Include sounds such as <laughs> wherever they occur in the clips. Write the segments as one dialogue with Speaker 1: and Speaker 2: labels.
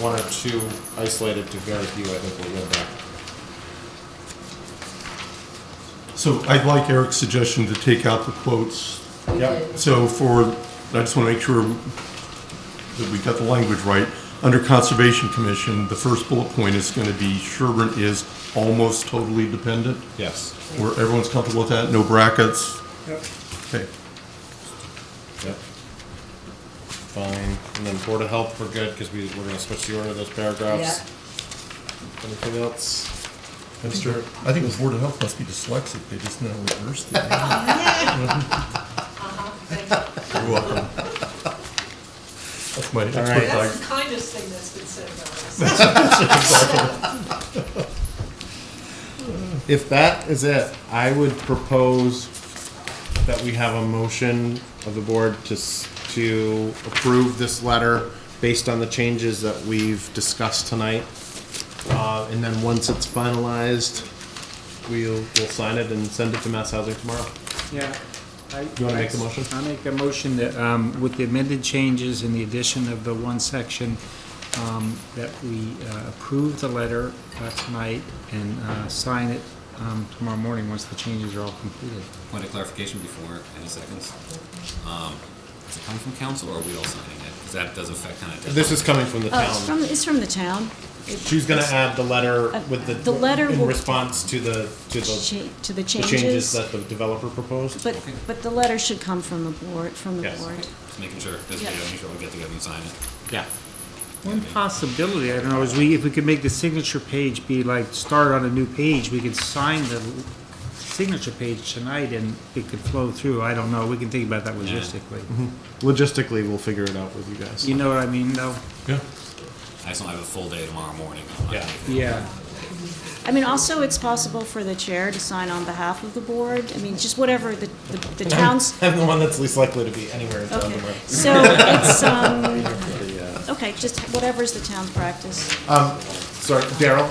Speaker 1: one or two isolated to very few, I think we'll go back.
Speaker 2: So I'd like Eric's suggestion to take out the quotes.
Speaker 3: We
Speaker 1: Yep.
Speaker 3: did.
Speaker 2: So for, I just want to make sure that we got the language right. Under Conservation Commission, the first bullet point is going to be Sherburne is almost totally dependent,
Speaker 1: Yes.
Speaker 2: where everyone's comfortable with that, no brackets.
Speaker 1: Yep.
Speaker 2: Okay,
Speaker 1: Yep. Fine, and then Board of Health, we're good, because we, we're gonna switch the order of those paragraphs. Anything else?
Speaker 2: Mr. I think the Board of Health must be dyslexic, they just now reversed it.
Speaker 3: Uh-huh.
Speaker 2: <laughs> You're welcome. That's my
Speaker 1: right.
Speaker 2: expert
Speaker 3: That's
Speaker 2: diag-
Speaker 3: the kindest thing that's been said about us.
Speaker 1: If that is it, I would propose that we have a motion of the board to, s- to approve this letter based on the changes that we've discussed tonight. Uh, and then once it's finalized, we'll, we'll sign it and send it to Mass Housing tomorrow.
Speaker 4: Yeah. I-
Speaker 1: You wanna make the motion?
Speaker 4: I make a motion that, um, with the amended changes and the addition of the one section, um, that we uh, approve the letter uh, tonight and uh, sign it um, tomorrow morning, once the changes are all completed.
Speaker 5: Point of clarification before any seconds. Um, Is it coming from council or are we all signing it? Because that does affect kind of.
Speaker 1: This is coming from the
Speaker 6: Oh, it's from,
Speaker 1: town.
Speaker 6: it's from the town.
Speaker 1: She's gonna add the letter with the.
Speaker 6: The letter
Speaker 1: In
Speaker 6: will-
Speaker 1: response to the, to the
Speaker 6: Cha- To the
Speaker 1: the changes
Speaker 6: changes.
Speaker 1: that the developer proposed.
Speaker 6: But, but the letter should come from the board, from the
Speaker 1: Yes.
Speaker 6: board.
Speaker 5: Just making sure, just
Speaker 6: Yeah.
Speaker 5: making sure we get together and sign it.
Speaker 1: Yeah.
Speaker 4: One possibility, I don't know, is we, if we could make the signature page be like, start on a new page, we could sign the signature page tonight and it could flow through, I don't know, we can think about that logistically.
Speaker 1: Mm-hmm. Logistically, we'll figure it out with you guys.
Speaker 4: You know what I mean, though?
Speaker 2: Yeah.
Speaker 5: I just don't have a full day tomorrow morning. I'm not
Speaker 1: Yeah.
Speaker 5: gonna-
Speaker 4: Yeah.
Speaker 6: I mean, also, it's possible for the chair to sign on behalf of the board. I mean, just whatever the, the- the town's,
Speaker 1: <laughs> I'm the one that's least likely to be anywhere in town
Speaker 6: okay.
Speaker 1: tomorrow.
Speaker 6: So it's, um, okay, just whatever's the town's practice.
Speaker 1: Um, Sorry, Daryl?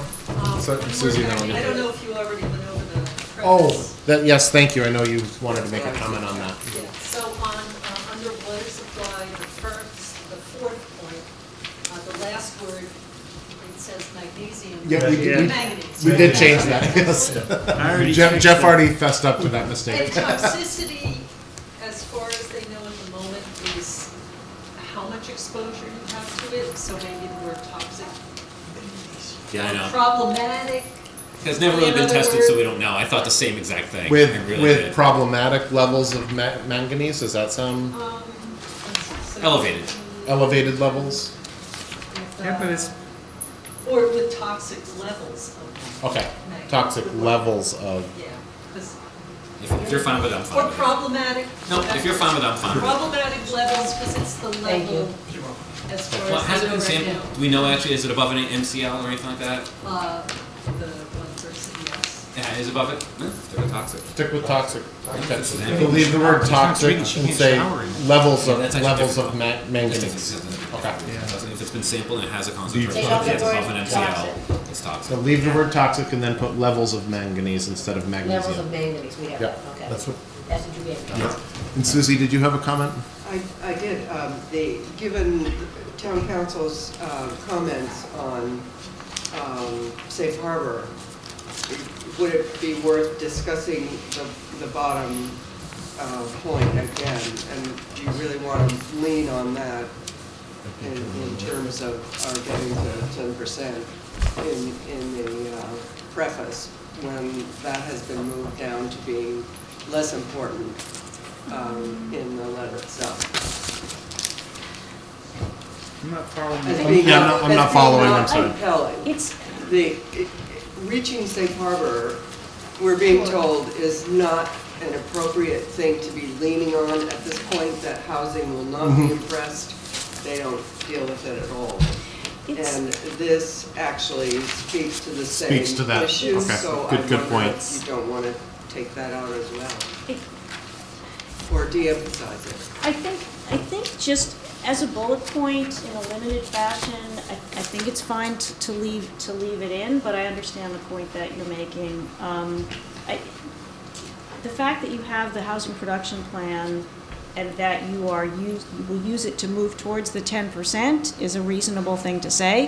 Speaker 1: <laughs> So- Susie,
Speaker 3: Um, We're
Speaker 1: now we'll
Speaker 3: back. I
Speaker 1: get-
Speaker 3: don't know if you already went over the preface.
Speaker 1: Oh, that, yes, thank you. I know you wanted to make a comment on that.
Speaker 3: Yeah, so on, uh, under water supply, the first, the fourth point, uh, the last word, it says magnesium.
Speaker 1: Yeah, we
Speaker 4: did- we-
Speaker 3: Manganese.
Speaker 1: We did change that, <laughs> yes.
Speaker 4: I already
Speaker 1: Jeff,
Speaker 4: fixed
Speaker 1: Jeff
Speaker 4: it.
Speaker 1: already fessed up to that
Speaker 3: And
Speaker 1: mistake.
Speaker 3: toxicity, as far as they know at the moment, is how much exposure you have to it, so maybe the word toxic.
Speaker 5: Yeah, I know.
Speaker 3: Problematic,
Speaker 5: It's never really
Speaker 3: In
Speaker 5: been
Speaker 3: other
Speaker 5: tested, so we
Speaker 3: words-
Speaker 5: don't know. I thought the same exact thing.
Speaker 1: With,
Speaker 5: I really
Speaker 1: with
Speaker 5: did.
Speaker 1: problematic levels of ma- manganese, does that sound
Speaker 3: um. so-
Speaker 5: Elevated.
Speaker 1: elevated levels?
Speaker 3: with,
Speaker 4: Yeah, but it's-
Speaker 3: uh, Or with toxic levels of.
Speaker 1: Okay, toxic levels of,
Speaker 3: Yeah, 'cause-
Speaker 5: If if you're fine with it, I'm fine
Speaker 3: Or
Speaker 5: with it.
Speaker 3: problematic.
Speaker 5: No, if you're fine with it, I'm fine with it.
Speaker 3: Problematic levels, because it's the level as
Speaker 5: Well,
Speaker 3: far as
Speaker 5: has
Speaker 3: they
Speaker 5: it
Speaker 3: know
Speaker 5: been sampled?
Speaker 3: right
Speaker 5: Do we know actually, is it above any MCL or anything like that?
Speaker 3: now. Uh, the one person, yes.
Speaker 5: Yeah, it is above it? No, it's still toxic.
Speaker 1: stick with toxic. Okay.
Speaker 5: It's an
Speaker 1: We'll leave the word toxic and
Speaker 4: She can't
Speaker 1: say
Speaker 4: shower in it.
Speaker 1: levels of,
Speaker 5: Yeah, that's actually
Speaker 1: levels
Speaker 5: different.
Speaker 1: of ma-
Speaker 5: Just if
Speaker 1: manganese.
Speaker 5: it's-
Speaker 1: Okay.
Speaker 5: If it's been sampled and it has a concentration,
Speaker 7: Take out
Speaker 5: if
Speaker 7: the
Speaker 5: it's
Speaker 7: word
Speaker 5: above an MCL, it's
Speaker 1: So
Speaker 5: toxic.
Speaker 1: leave the word toxic and then put levels of manganese instead of
Speaker 7: Levels of
Speaker 1: magnesium.
Speaker 7: manganese, we have,
Speaker 1: Yeah,
Speaker 7: okay.
Speaker 1: that's what-
Speaker 7: That's what you gave me.
Speaker 1: Yeah. And Susie, did you have a comment?
Speaker 8: I, I did, um, the, given town council's, uh, comments on, um, safe harbor, would it be worth discussing the, the bottom, uh, point again? And do you really want to lean on that in, in terms of our getting to ten percent in, in the, uh, preface, when that has been moved down to being less important, um, in the letter itself?
Speaker 4: I'm not following
Speaker 8: as
Speaker 4: you.
Speaker 8: being
Speaker 1: Yeah, I'm
Speaker 8: not-
Speaker 1: not- I'm
Speaker 8: as
Speaker 1: not
Speaker 8: being
Speaker 1: following,
Speaker 8: not
Speaker 1: I'm sorry.
Speaker 8: compelling.
Speaker 6: It's,
Speaker 8: The, it- reaching safe harbor, we're being told, is not an appropriate thing to be leaning on at this point, that housing will not
Speaker 1: Mm-hmm.
Speaker 8: be impressed. They don't deal with it at all.
Speaker 6: It's-
Speaker 8: And this actually speaks to the same
Speaker 1: Speaks to that.
Speaker 8: issue,
Speaker 1: Okay.
Speaker 8: so I
Speaker 1: Good- good
Speaker 8: wonder
Speaker 1: point.
Speaker 8: if you don't want to take that out as well,
Speaker 6: it,
Speaker 8: or de-emphasize it.
Speaker 6: I think, I think just as a bullet point in a limited fashion, I, I think it's fine t- to leave, to leave it in, but I understand the point that you're making. Um, I, the fact that you have the housing production plan and that you are use, you will use it to move towards the ten percent is a reasonable thing to say.